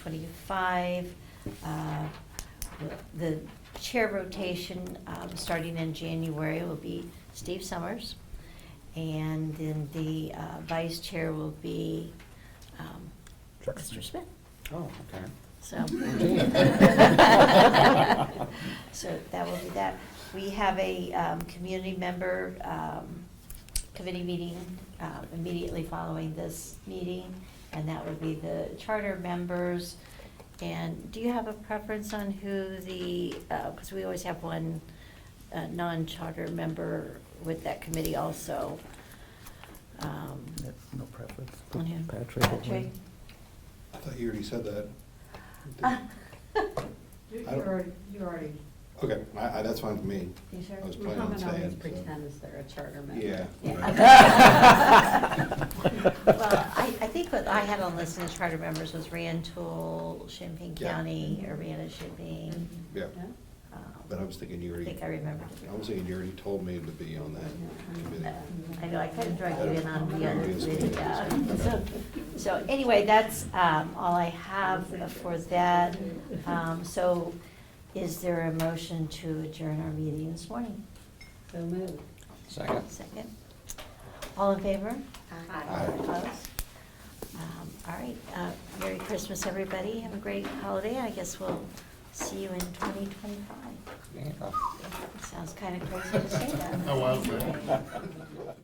25. uh, The chair rotation, um, starting in January, will be Steve Summers. And then the uh, vice chair will be um, Mr. Smith. Oh, okay. So. So that will be that. We have a um, community member um, committee meeting um, immediately following this meeting, and that would be the charter members. And do you have a preference on who the, because we always have one uh, non-charter member with that committee also. Um, No- No preference. On him. Patrick. or Patrick? me. I thought you already said that. You you I don't- already, you already, Okay, I, I, that's fine with me. you sure? I was planning on Muhammad staying. always so- pretends they're a charter member. Yeah. Yeah. right. Well, I, I think what I had on list as charter members was Rantoul, Champaign Yeah. County, Urbana, Champaign. Yeah, um, but I was thinking you I already. think I remembered. I was thinking you already told me to be on that committee. Uh, I know, I kind of dragged you in on the other Yeah. committee, yeah. So- So anyway, that's um, all I have for that. Um, So is there a motion to adjourn our meeting this morning? So moved. Second. Second. All in favor? Aye. Opposed? Um, All right, uh, Merry Christmas, everybody. Have a great holiday. I guess we'll see you in 2025. Yeah. Sounds kind of crazy to say that. I was there.